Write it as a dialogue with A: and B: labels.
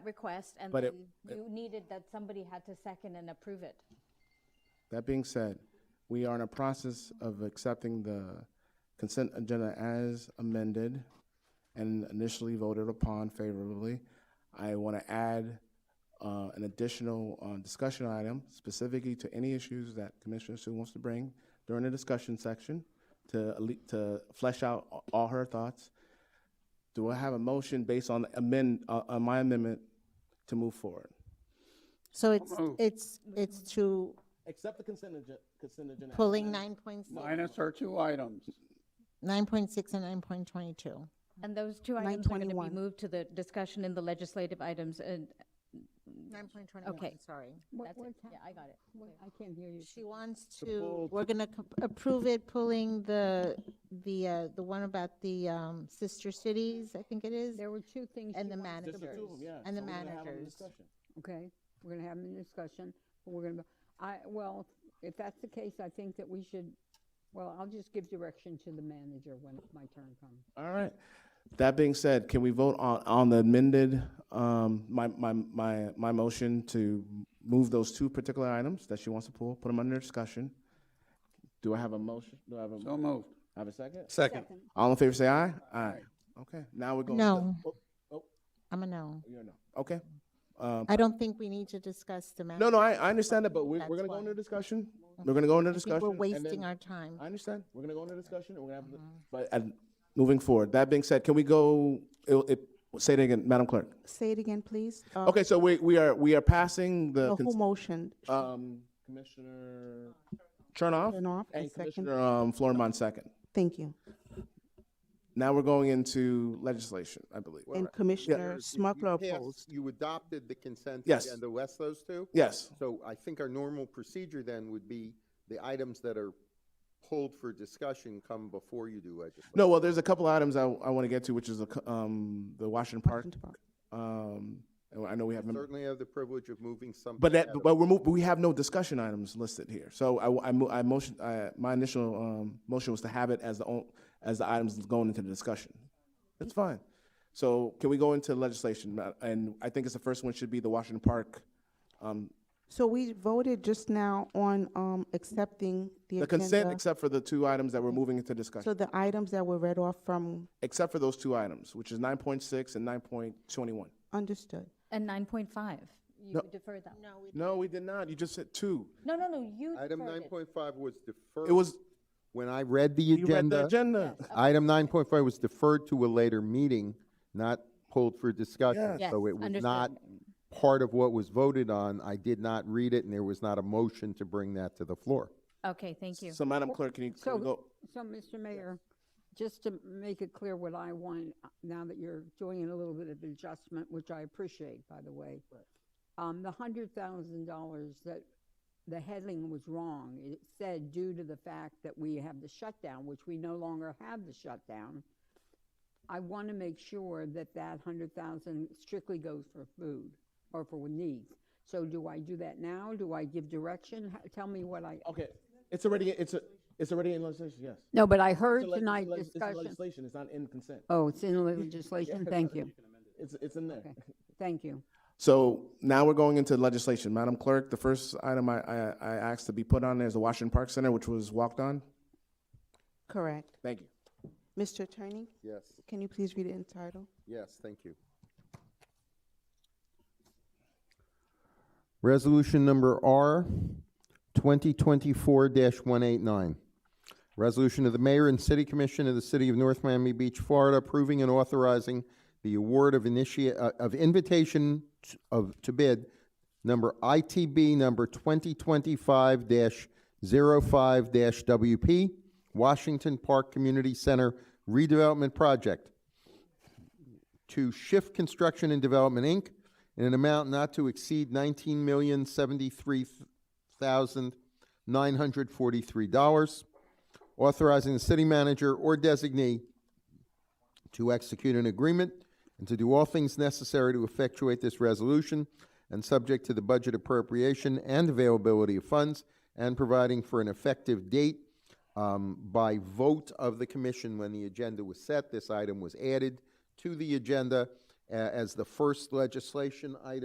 A: request and
B: But it-
A: then you needed that somebody had to second and approve it.
B: That being said, we are in a process of accepting the consent agenda as amended and initially voted upon favorably. I want to add uh, an additional uh, discussion item specifically to any issues that Commissioner Sue wants to bring during the discussion section to, alle- to flesh out a- all her thoughts. Do I have a motion based on amend, uh, on my amendment to move forward?
C: So it's, it's, it's to
B: Accept the consent agenda, consent agenda.
C: pulling nine point six,
D: Minus our two items.
C: nine point six and nine point twenty-two.
A: And those two items are going to be
E: 921.
A: moved to the discussion in the legislative items and,
C: Nine point twenty-one,
A: Okay.
C: sorry.
A: that's it. Yeah, I got it.
E: I can't hear you.
C: She wants to, we're gonna co- approve it, pulling the, the, uh, the one about the, um, sister cities, I think it is,
E: There were two things.
C: and
E: she
C: the
E: wanted to
C: managers.
E: raise.
C: And the managers.
E: Okay, we're gonna have a discussion, but we're gonna, I, well, if that's the case, I think that we should, well, I'll just give direction to the manager when my turn comes.
B: All right. That being said, can we vote on, on the amended, um, my, my, my, my motion to move those two particular items that she wants to pull, put them under discussion? Do I have a motion? Do I have a,
D: So moved.
B: have a second?
F: Second.
B: All in favor, say aye? Aye. Okay, now we're going. to-
C: No.
B: Oh, oh,
C: I'm a no.
B: you're no. Okay. Um,
C: I don't think we need to discuss the.
B: no, no, I, I understand that, but we're, we're
C: That's
B: gonna go
C: why.
B: into discussion. We're gonna go into
C: I think
B: discussion.
C: we're
B: and then-
C: wasting our Mm-hmm. time.
B: I understand. We're gonna go into discussion, and we're gonna have, but, and moving forward, that being said, can we go, it, it, say it again, Madam Clerk?
G: Say it again, please. Uh,
B: Okay, so we, we are, we are passing the,
G: uh, Who motioned?
B: cons- um, Commissioner Chernoff
G: Chernoff, and
B: and
G: second-
B: Commissioner, um, Florimond second.
G: Thank you.
B: Now we're going into legislation, I believe.
G: And Commissioner
F: There's- you-
G: Smucker
F: you passed-
G: opposed.
F: You adopted the consent
B: Yes.
F: agenda, West those two?
B: Yes,
F: So I think our normal procedure then would be the items that are pulled for discussion come before you do legislation.
B: no, well, there's a couple items I, I wanna get to, which is the, co- um, the Washington Park. Um, and I know we have, mem-
F: Certainly have the privilege of moving something.
B: but that,
F: out of-
B: but we're, mov- we have no discussion items listed here. So I, I, mo- I motion, I, my initial, um, motion was to have it as the, on- as the items going into the discussion. That's fine. So can we go into legislation? Ma- And I think it's the first one should be the Washington Park, um,
G: So we voted just now on um, accepting the
B: the consent,
G: agenda.
B: except for the two items that we're moving into
G: So
B: discussion,
G: the items that were read off from,
B: except for those two items, which is nine point six and nine point twenty-one.
G: understood.
A: And 9.5, you
B: No.
A: defer that. No.
B: No, we did not. You just said two.
A: No, no, no, you
F: Item
A: deferred
F: nine
A: it.
F: point five was deferred.
B: It was,
F: When I read the
B: you read the
F: agenda,
B: agenda.
F: item nine point five was deferred to a later meeting, not pulled for discussion.
A: Yes.
F: So
A: Yes,
F: it was
A: understood.
F: not part of what was voted on. I did not read it and there was not a motion to bring that to the floor.
A: Okay, thank you.
B: So Madam Clerk, can you, can
E: So,
B: we go?
E: so Mr. Mayor, just to make it clear what I want, uh, now that you're doing a little bit of adjustment, which I appreciate, by the way. Um, the hundred thousand dollars that, the heading was wrong. It said due to the fact that we have the shutdown, which we no longer have the shutdown. I want to make sure that that hundred thousand strictly goes for food or for needs. So do I do that now? Do I give direction? H- Tell me what I,
B: Okay, it's already, it's, a- it's already in legislation, yes.
E: no, but I heard
B: It's a leg-
E: tonight
B: leg- it's a
E: discussion.
B: Legislation, it's not in consent.
E: Oh, it's in the legislation, thank you,
B: It's, it's in there.
E: thank you.
B: So now we're going into legislation. Madam Clerk, the first item I, I, I asked to be put on there is the Washington Park Center, which was walked on.
G: Correct.
B: Thank you.
G: Mr. Attorney,
F: Yes,
G: can you please read it in title?
F: yes, thank you. Resolution number R twenty twenty-four one eight nine. Resolution of the Mayor and City Commission of the City of North Miami Beach, Florida, approving and authorizing the award of initia, uh, of invitation t- of, to bid number ITB number twenty twenty-five 5 WP, Washington Park Community Center redevelopment project to Shift Construction and Development, Inc., in an amount not to exceed nineteen million seventy-three thousand nine hundred forty-three dollars, authorizing the city manager or designee to execute an agreement and to do all things necessary to effectuate this resolution and subject to the budget appropriation and availability of funds and providing for an effective date um, by vote of the commission when the agenda was set. This item was added to the agenda a- as the first legislation item.